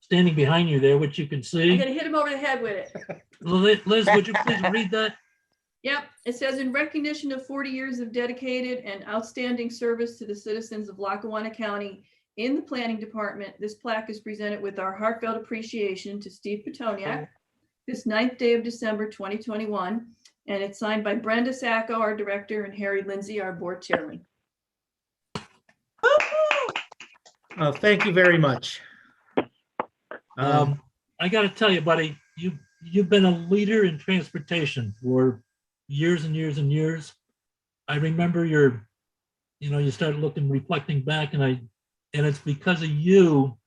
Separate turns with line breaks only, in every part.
standing behind you there, which you can
I'm
see.
gonna hit him over the head with it.
Li- Liz, would you please read that?
Yep, it says in recognition of forty years of dedicated and outstanding service to the citizens of Lackawanna County in the planning department, this plaque is presented with our heartfelt appreciation to Steve Petoniak this ninth day of December twenty twenty-one, and it's signed by Brenda Sacco, our director, and Harry Lindsay, our board chairman.
Uh, Thank you very much. Um,
Um, I gotta tell you, buddy, you, you've been a leader in transportation for years and years and years. I remember your, you know, you started looking, reflecting back and I, and it's because of you,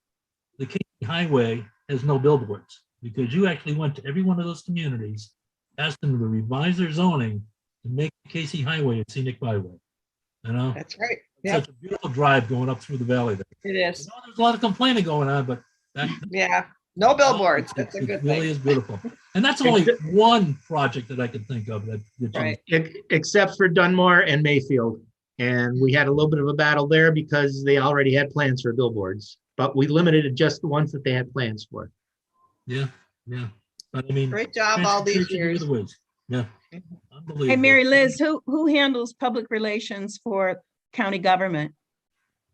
the King Highway has no billboards. Because you actually went to every one of those communities, asked them to revise their zoning to make Casey Highway a scenic byway. You know,
That's right. Yeah,
such a beautiful drive going up through the valley there.
it
You
is.
know, There's a lot of complaining going on, but that,
Yeah, no billboards.
it-
That's a
it
good
Really
thing.
is beautiful. And that's only one project that I can think of that. that you-
Right.
ex- Except for Dunmore and Mayfield. And we had a little bit of a battle there because they already had plans for billboards. But we limited it just the ones that they had plans for.
Yeah, yeah. But I mean.
Great job all these
transportation
years. Mm-hmm.
other ways. Yeah. Unbelievable.
Hey, Mary Liz, who, who handles public relations for county government?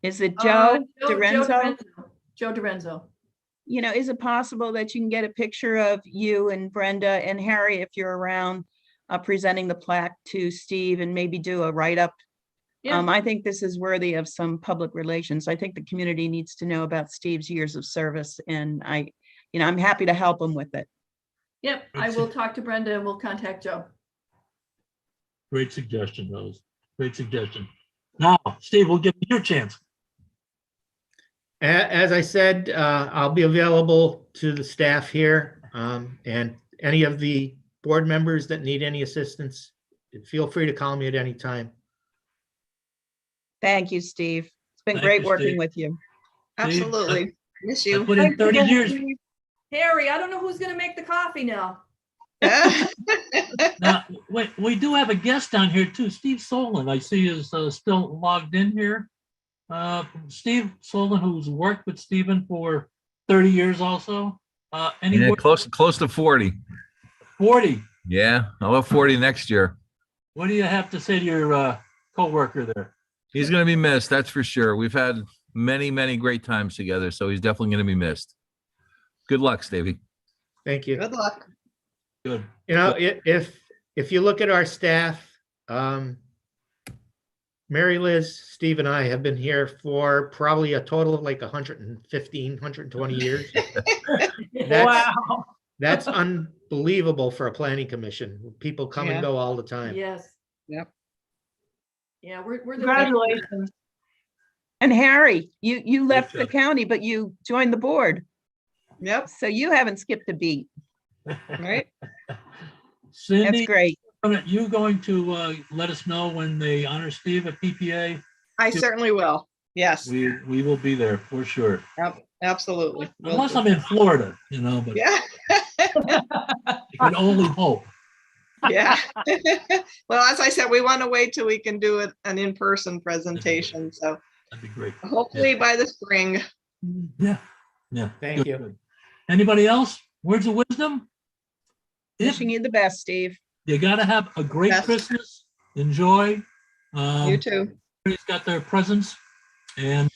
Is it
Uh,
Joe Dorenzo?
Joe Dorenzo.
You know, is it possible that you can get a picture of you and Brenda and Harry if you're around uh, presenting the plaque to Steve and maybe do a write-up?
Yeah.
Um, I think this is worthy of some public relations. I think the community needs to know about Steve's years of service and I, you know, I'm happy to help him with it.
Yep, I will talk to Brenda and we'll contact Joe.
Great suggestion, Rose. Great suggestion. Now, Steve, we'll give you your chance.
A- As I said, uh, I'll be available to the staff here um, and any of the board members that need any assistance. Feel free to call me at any time.
Thank you, Steve. It's been
Thank
great
you,
working
Steve.
with you.
Absolutely. Miss
I
you.
put in 30 years.
Harry, I don't know who's gonna make the coffee now.
Now, we, we do have a guest down here too, Steve Solon. I see is uh, still logged in here. Uh, Steve Solon, who's worked with Stephen for 30 years also. Uh, any
Yeah,
word-
close, close to 40.
40.
Yeah, I'll have 40 next year.
What do you have to say to your uh, coworker there?
He's going to be missed, that's for sure. We've had many, many great times together, so he's definitely going to be missed. Good luck, Stevie.
Thank you.
Good luck.
Good.
You know, i- if, if you look at our staff, um, Mary Liz, Steve and I have been here for probably a total of like 115, 120 years. That's, that's unbelievable for a planning commission. People come and
Yeah.
go all the time.
Yes.
Yep.
Yeah, we're, we're. the-
Congratulations.
And Harry, you, you left the
job.
county, but you joined the board.
Yep,
So you haven't skipped a beat.
right.
That's
Cindy,
great.
you going to uh, let us know when they honor Steve at PPA?
I certainly will. Yes,
We, we will be there for sure.
ab- absolutely. Will
Unless
do.
I'm in Florida, you know, but
Yeah,
I can only hope.
yeah. Well, as I said, we want to wait till we can do it- an in-person presentation. So
That'd be great.
hopefully by the spring.
Yeah, yeah.
Thank
good,
you.
good. Anybody else? Words of wisdom? If
Wishing you the best, Steve.
you gotta have a great
Yes.
Christmas, enjoy.
You
Um,
too.
everybody's got their presents and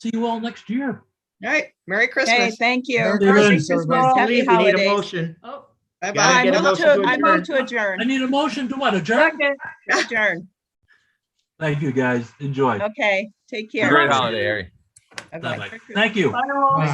see you all next year.
All right. Merry
Hey,
Christmas.
thank you.
Merry
Merry
Christmas,
Christmas,
Before we leave,
Happy
we need a
holidays.
motion.
Oh,
Gotta
Bye-bye.
get
I
a
move
motion
to,
to
I move to
I
adjourn,
need a motion to what, adjourn?
Second, adjourn.
Thank you, guys. Enjoy.
Okay, take care.
Great holiday, Harry.
Bye-bye.
Bye-bye. Thank you.
Bye all.